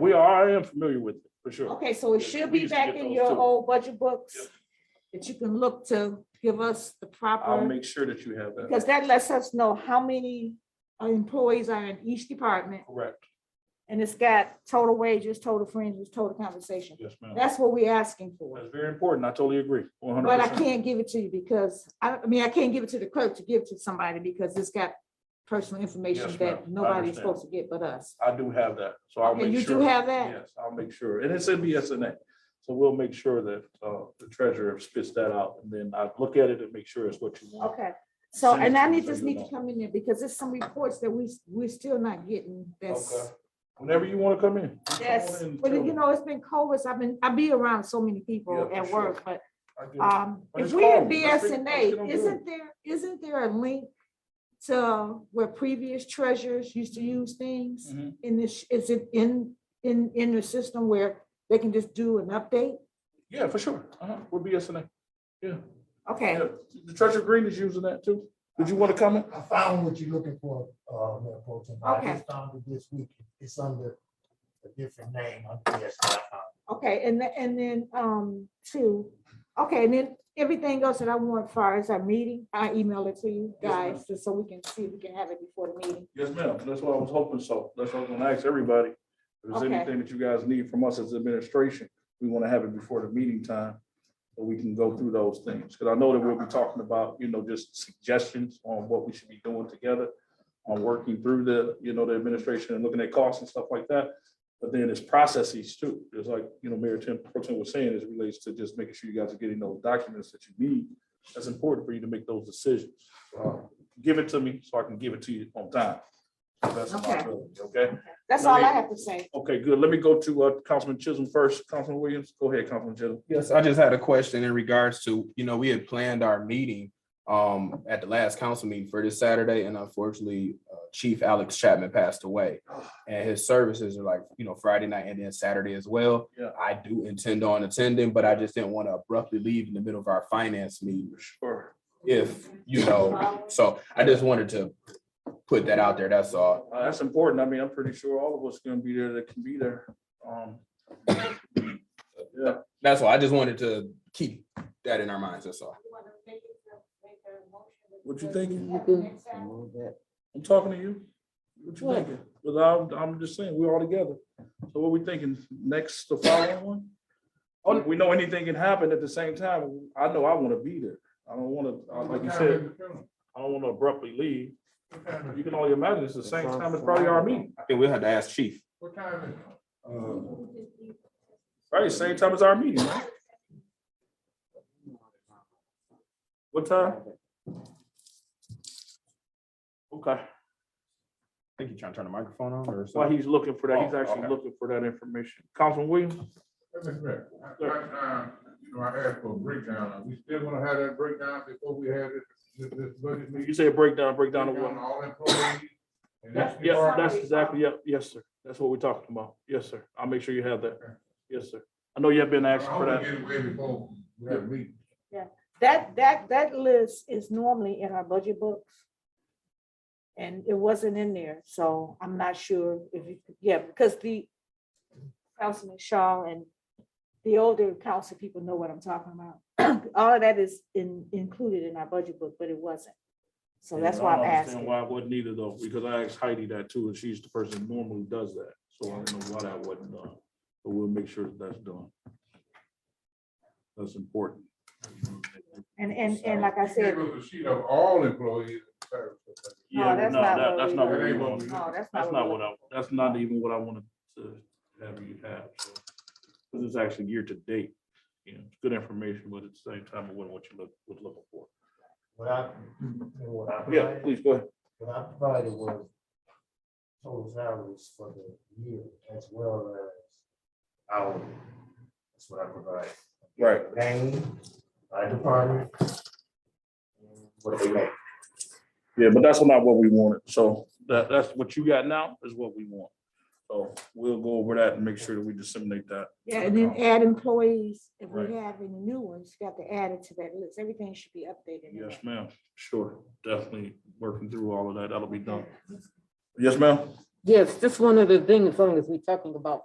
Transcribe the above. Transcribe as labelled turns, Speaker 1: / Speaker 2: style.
Speaker 1: We are, I am familiar with it, for sure.
Speaker 2: Okay, so it
Speaker 1: Yeah,
Speaker 2: should
Speaker 1: we
Speaker 2: be
Speaker 1: used to
Speaker 2: back
Speaker 1: get
Speaker 2: in
Speaker 1: those
Speaker 2: your
Speaker 1: too.
Speaker 2: old budget books
Speaker 1: Yep.
Speaker 2: that you can look to give us the
Speaker 1: I'll
Speaker 2: proper,
Speaker 1: make sure that you have that
Speaker 2: because that lets us know how many uh, employees are in each department.
Speaker 1: correct.
Speaker 2: And it's got total wages, total fringes, total compensation.
Speaker 1: Yes, ma'am.
Speaker 2: That's what we're asking for.
Speaker 1: That's very important. I totally agree. One hundred
Speaker 2: But I
Speaker 1: percent.
Speaker 2: can't give it to you because, I, I mean, I can't give it to the clerk to give to somebody because it's got personal information
Speaker 1: Yes, ma'am. I
Speaker 2: that nobody's
Speaker 1: understand.
Speaker 2: supposed to get but us.
Speaker 1: I do have that, so I'll
Speaker 2: Okay,
Speaker 1: make sure.
Speaker 2: you do have that?
Speaker 1: Yes, I'll make sure, and it's in BSNA, so we'll make sure that uh, the treasurer spits that out, and then I look at it and make sure it's what you want.
Speaker 2: Okay, so,
Speaker 1: Send it
Speaker 2: and
Speaker 1: to
Speaker 2: I
Speaker 1: me
Speaker 2: need,
Speaker 1: so
Speaker 2: just
Speaker 1: you
Speaker 2: need to
Speaker 1: know.
Speaker 2: come in there because there's some reports that we, we're still not getting
Speaker 1: Okay.
Speaker 2: that's,
Speaker 1: Whenever you want to come in. you come
Speaker 2: that's,
Speaker 1: on in and
Speaker 2: but
Speaker 1: tell
Speaker 2: you
Speaker 1: me.
Speaker 2: know, it's been COVID, so I've been, I be around so many people
Speaker 1: Yeah, for
Speaker 2: at
Speaker 1: sure.
Speaker 2: work, but,
Speaker 1: I get it.
Speaker 2: um,
Speaker 1: But
Speaker 2: if
Speaker 1: it's
Speaker 2: we're in
Speaker 1: cold. Let's get- let's get on
Speaker 2: BSNA,
Speaker 1: good.
Speaker 2: isn't there, isn't there a link to where previous treasurers used to use things?
Speaker 1: Mhm.
Speaker 2: in this, is it in, in, in your system where they can just do an update?
Speaker 1: Yeah, for sure, uh-huh, with BSNA, yeah,
Speaker 2: Okay,
Speaker 1: yeah, the treasurer Green is using that too, did you want to comment?
Speaker 3: I found what you're looking for, uh, Mayor Pro Tem. I
Speaker 2: Okay.
Speaker 3: just found it this week. It's under a different name. under the SI.
Speaker 2: okay, and, the- and then, um, two, okay, and then everything else that I want as far as our meeting, I email it to you
Speaker 1: Yes, ma'am.
Speaker 2: guys, just so we can see if we can have it before the meeting.
Speaker 1: Yes, ma'am, that's what I was hoping, so that's what I'm gonna ask everybody. If there's
Speaker 2: Okay.
Speaker 1: anything that you guys need from us as administration, we wanna have it before the meeting time. So we can go through those things, because I know that we'll be talking about, you know, just suggestions on what we should be doing together. On working through the, you know, the administration and looking at costs and stuff like that. But then it's processes too, It's like, you know, Mayor Tim Proton was saying, as it relates to just making sure you guys are getting those documents that you need. That's important for you to make those decisions. Uh, Give it to me so I can give it to you on time. That's my
Speaker 2: Okay.
Speaker 1: ability, okay?
Speaker 2: That's all I have to say.
Speaker 1: Okay, good. Let me go to uh, Councilman Chisholm first. Councilman Williams, go ahead, Councilman Chisholm.
Speaker 4: Yes, I just had a question in regards to, you know, we had planned our meeting um at the last council meeting for this Saturday, and unfortunately, uh, Chief Alex Chapman passed away. And his services are like, you know, Friday night and then Saturday as well.
Speaker 1: Yeah.
Speaker 4: I do intend on attending, but I just didn't want to abruptly leave in the middle of our finance meeting
Speaker 1: Sure.
Speaker 4: if, you know, so I just wanted to put that out there, that's all.
Speaker 1: Uh, That's important. I mean, I'm pretty sure all of us gonna be there that can be there. Um, Yeah,
Speaker 4: That's all. I just wanted to keep that in our minds, that's all.
Speaker 1: what you thinking?
Speaker 3: Move that.
Speaker 1: I'm talking to you. What you thinking? Well, I'm, I'm just saying, we're all together. So what we thinking? Next, the following one? Oh, we know anything can happen at the same time. I know I wanna be there. I don't wanna, uh, like you said, I don't wanna abruptly leave. You can only imagine it's the same time as probably our meeting.
Speaker 4: I think we'll have to ask Chief.
Speaker 3: What time is it?
Speaker 1: Right, same time as our meeting, right? What time? Okay,
Speaker 4: I think you're trying to turn the microphone on or
Speaker 1: while
Speaker 4: something.
Speaker 1: he's looking for that, he's
Speaker 4: Oh,
Speaker 1: actually
Speaker 4: okay.
Speaker 1: looking for that information. Councilman Williams?
Speaker 5: Mr. Mayor, I, I, uh, you know, I asked for a breakdown. Are we still gonna have that breakdown before we had this, this, this budget meeting?
Speaker 1: You said breakdown, breakdown of
Speaker 5: Breakdown
Speaker 1: what?
Speaker 5: of All employees. and
Speaker 1: Yeah,
Speaker 5: that's the
Speaker 1: yeah,
Speaker 5: part-
Speaker 1: that's exactly, yep, yes, sir. That's what we're talking about. Yes, sir. I'll make sure you have that. Yes, sir. I know you have been
Speaker 5: I
Speaker 1: asking for
Speaker 5: wanna
Speaker 1: that.
Speaker 5: get away before we have a meeting.
Speaker 2: That, that, that list is normally in our budget books. And it wasn't in there, so I'm not sure if you, yeah, because the Councilman Shaw and the older council people know what I'm talking about. All of that is in, included in our budget book, but it wasn't. So that's why
Speaker 1: I
Speaker 2: I'm
Speaker 1: don't understand
Speaker 2: asking.
Speaker 1: Why it wasn't either though, because I asked Heidi that too, and she's the person who normally does that. So I don't know why that wasn't done, but we'll make sure that that's done. That's important.
Speaker 2: And, and, and like I said,
Speaker 5: It was a sheet of all employees.
Speaker 1: Yeah,
Speaker 2: that's
Speaker 1: no,
Speaker 2: not
Speaker 1: that-
Speaker 2: what
Speaker 1: that's
Speaker 2: we
Speaker 1: not
Speaker 2: were-
Speaker 1: what we
Speaker 5: That ain't what
Speaker 1: want.
Speaker 5: we-
Speaker 2: no, that's
Speaker 1: Oh, That's
Speaker 2: not.
Speaker 1: not
Speaker 2: we-
Speaker 1: what I, that's not even what I wanted to have you have. Because it's actually year to date. You know, it's good information, but at the same time, it wasn't what you look, was looking for.
Speaker 3: What I, what I
Speaker 1: Yeah,
Speaker 3: provided,
Speaker 1: please go ahead.
Speaker 3: what I provided was total salaries for the year as well as hourly. That's what I provided.
Speaker 1: Right.
Speaker 3: Name, by department. and What they make.
Speaker 1: Yeah, but that's not what we wanted. So that, that's what you got now is what we want. So we'll go over that and make sure that we disseminate that.
Speaker 2: Yeah, and then add employees, if
Speaker 1: Right.
Speaker 2: we have any new ones, got to add it to that list, everything should be updated. in
Speaker 1: Yes,
Speaker 2: that.
Speaker 1: ma'am. Sure. Definitely working through all of that. That'll be done. Yes, ma'am.
Speaker 6: Yes, just one other thing, as long as we're talking about